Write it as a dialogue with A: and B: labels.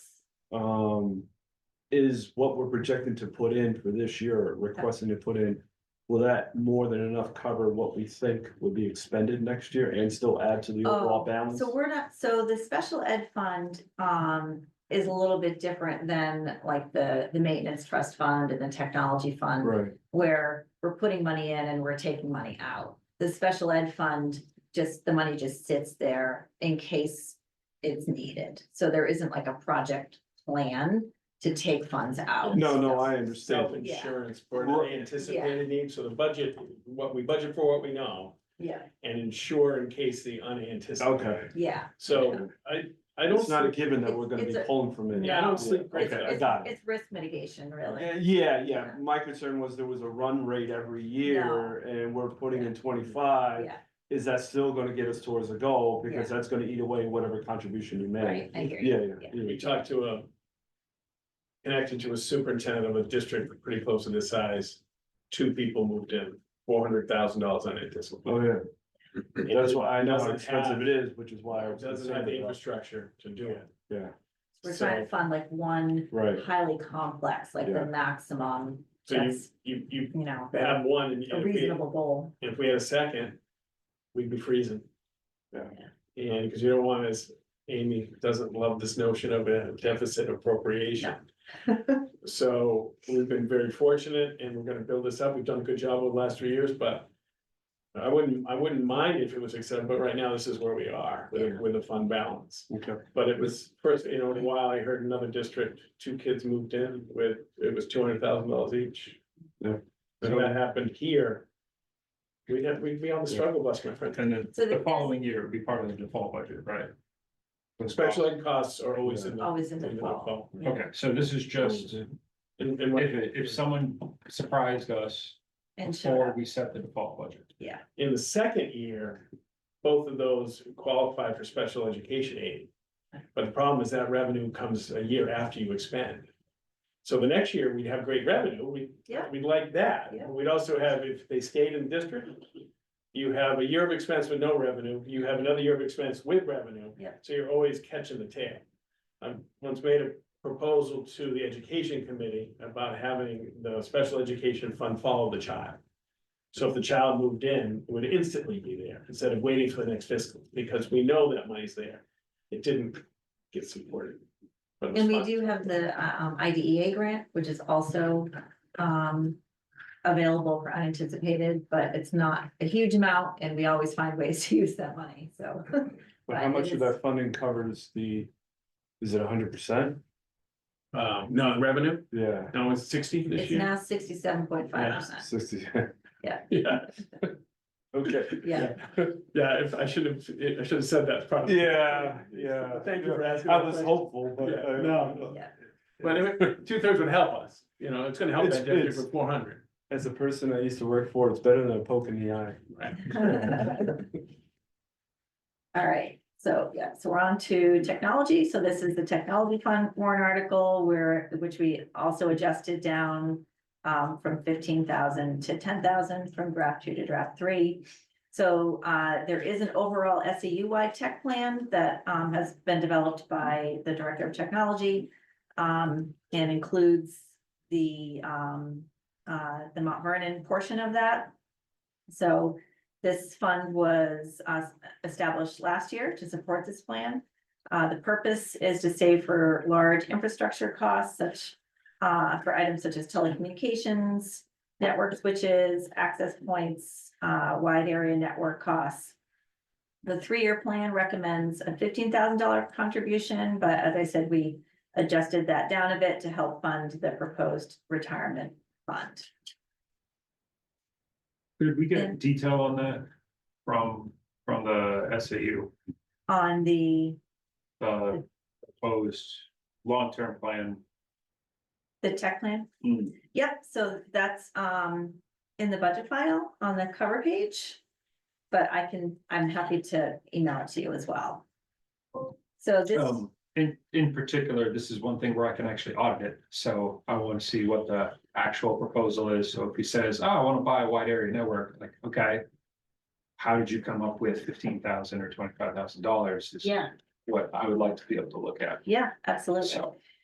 A: um, is what we're projecting to put in for this year, requesting to put in. Will that more than enough cover what we think would be expended next year and still add to the overall
B: Oh,
A: balance?
B: So we're not, so the special ed fund, um, is a little bit different than like the, the maintenance trust fund and the technology fund.
A: Right,
B: Where we're putting money in and we're taking money out. The special ed fund, just, the money just sits there in case it's needed. So there isn't like a project plan to take funds out.
A: no, no, I
C: Self
A: understand,
B: Yeah.
C: insurance for the anticipated needs, so the budget, what we budget for, what we know,
B: Yeah,
C: and insure in case the unanticipated.
A: okay,
B: yeah.
C: So I, I don't.
A: it's not a
C: think-
A: given that we're gonna
B: It's
A: be
B: a-
A: pulling from it.
C: Yeah, I don't think-
A: Okay, I
B: It's,
A: got it.
B: it's risk mitigation, really.
A: Uh, Yeah, yeah, my concern was there was a run rate every year and we're putting in twenty-five.
B: Yeah.
A: Is that still gonna get us towards the goal? Because that's gonna eat away whatever contribution you
B: Right,
A: make.
B: I hear you.
A: Yeah, yeah,
B: Yeah.
A: yeah.
C: We talked to a. Connected to a superintendent of a district pretty close to this size, two people moved in, four hundred thousand dollars unanticipated.
A: Oh, yeah, that's why I know how
C: Doesn't
A: expensive
C: have-
A: it is, which is why I was
C: Doesn't have
A: concerned
C: the
A: about.
C: infrastructure to do it.
A: Yeah,
B: We're trying to fund like one
A: right,
B: highly complex, like
A: Yeah.
B: the maximum,
C: So you,
B: just,
C: you, you
B: you know,
C: have one and
B: a
C: if we,
B: reasonable goal.
C: if we had a second, we'd be freezing.
A: Yeah.
C: And because you don't want us, Amy doesn't love this notion of a deficit appropriation. So we've been very fortunate and we're gonna build this up. We've done a good job over the last three years, but. I wouldn't, I wouldn't mind if it was accepted, but right now this is where we are with, with a fund balance.
A: okay,
C: But it was first, you know, while I heard another district, two kids moved in with, it was two hundred thousand dollars each.
A: Yeah.
C: So that happened here. We'd have, we'd be on the struggle bus, my friend.
D: And then
B: So the-
D: the following year would be part of the default budget, right?
C: Special ed costs are always in the.
B: Always in the
C: in the
B: fall.
C: fall.
B: Yeah.
D: Okay, so this is just, if,
C: And, and what-
D: if someone surprised us
B: And showed
D: before
B: up.
D: we set the default budget.
C: in the second year, both of those qualify for special education aid. But the problem is that revenue comes a year after you expend. So the next year, we'd have great revenue, we,
B: Yeah.
C: we'd like that,
B: Yeah.
C: we'd also have, if they stayed in the district. You have a year of expense with no revenue, you have another year of expense with revenue.
B: Yeah.
C: So you're always catching the tail. I once made a proposal to the education committee about having the special education fund follow the child. So if the child moved in, it would instantly be there instead of waiting for the next fiscal, because we know that money's there. It didn't get supported. but it was
B: And we
C: fine.
B: do have the uh, um IDEA grant, which is also um available for unanticipated, but it's not a huge amount and we always find ways to use that money, so.
A: but how
B: Right,
A: much
B: it
A: of
B: is-
A: that funding covers the, is it hundred percent?
C: Uh, no, revenue,
A: Yeah,
C: no, it's sixty this
B: It's
C: year.
B: now sixty-seven point five percent,
A: sixty,
C: Yeah,
A: okay,
B: yeah.
C: yeah, if I should have, I should have said that probably.
A: yeah, yeah.
C: Thank you for asking.
A: I
C: that
A: was
C: question.
A: hopeful, but.
C: Yeah,
A: uh,
C: no.
B: Yeah.
C: But anyway, two thirds would help us, you know, it's gonna help
A: It's-
C: that district
A: it's-
C: with four hundred.
A: As a person I used to work for, it's better than a poke in the eye.
B: All right, so yeah, so we're on to technology. So this is the technology fund warrant article where, which we also adjusted down um, from fifteen thousand to ten thousand from draft two to draft three. So uh, there is an overall SEU-wide tech plan that um, has been developed by the Director of Technology. um, and includes the um, uh, the Mount Vernon portion of that. So this fund was uh, established last year to support this plan. Uh, the purpose is to save for large infrastructure costs such, uh, for items such as telecommunications, network switches, access points, uh, wide area network costs. The three-year plan recommends a fifteen thousand dollar contribution, but as I said, we adjusted that down a bit to help fund the proposed retirement fund.
D: Could we
B: Yeah.
D: get detail on that from, from the SAU,
B: On the,
D: the uh, proposed long-term plan?
B: the tech plan,
D: Hmm.
B: Yep, so that's um in the budget file on the cover page. But I can, I'm happy to email it to you as well. So this,
D: Um, in, in particular, this is one thing where I can actually audit it, so I want to see what the actual proposal is, so if he says, oh, I want to buy a wide area network, like, okay. How did you come up with fifteen thousand or twenty-five thousand dollars is
B: yeah,
D: what I would like to be able to look at,
B: yeah, absolutely.
D: So-